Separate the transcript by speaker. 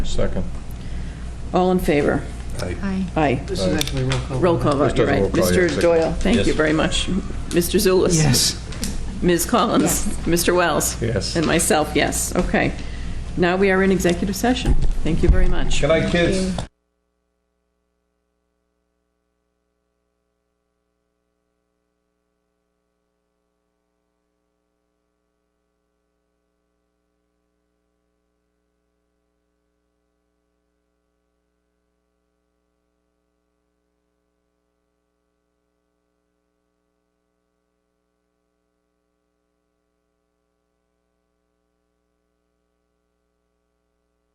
Speaker 1: Second.
Speaker 2: All in favor?
Speaker 3: Aye.
Speaker 2: Aye.
Speaker 4: This is actually roll call.
Speaker 2: Roll call vote,
Speaker 1: Just
Speaker 2: you're
Speaker 1: does
Speaker 2: right.
Speaker 1: roll call, yeah,
Speaker 2: Mr.
Speaker 1: second.
Speaker 2: Doyle, thank you
Speaker 1: Yes.
Speaker 2: very much. Mr. Zulus?
Speaker 4: Yes.
Speaker 2: Ms. Collins? Mr. Wells?
Speaker 1: Yes.
Speaker 2: And myself, yes. Okay. Now we are in executive session. Thank you very much.
Speaker 1: Good night, kids.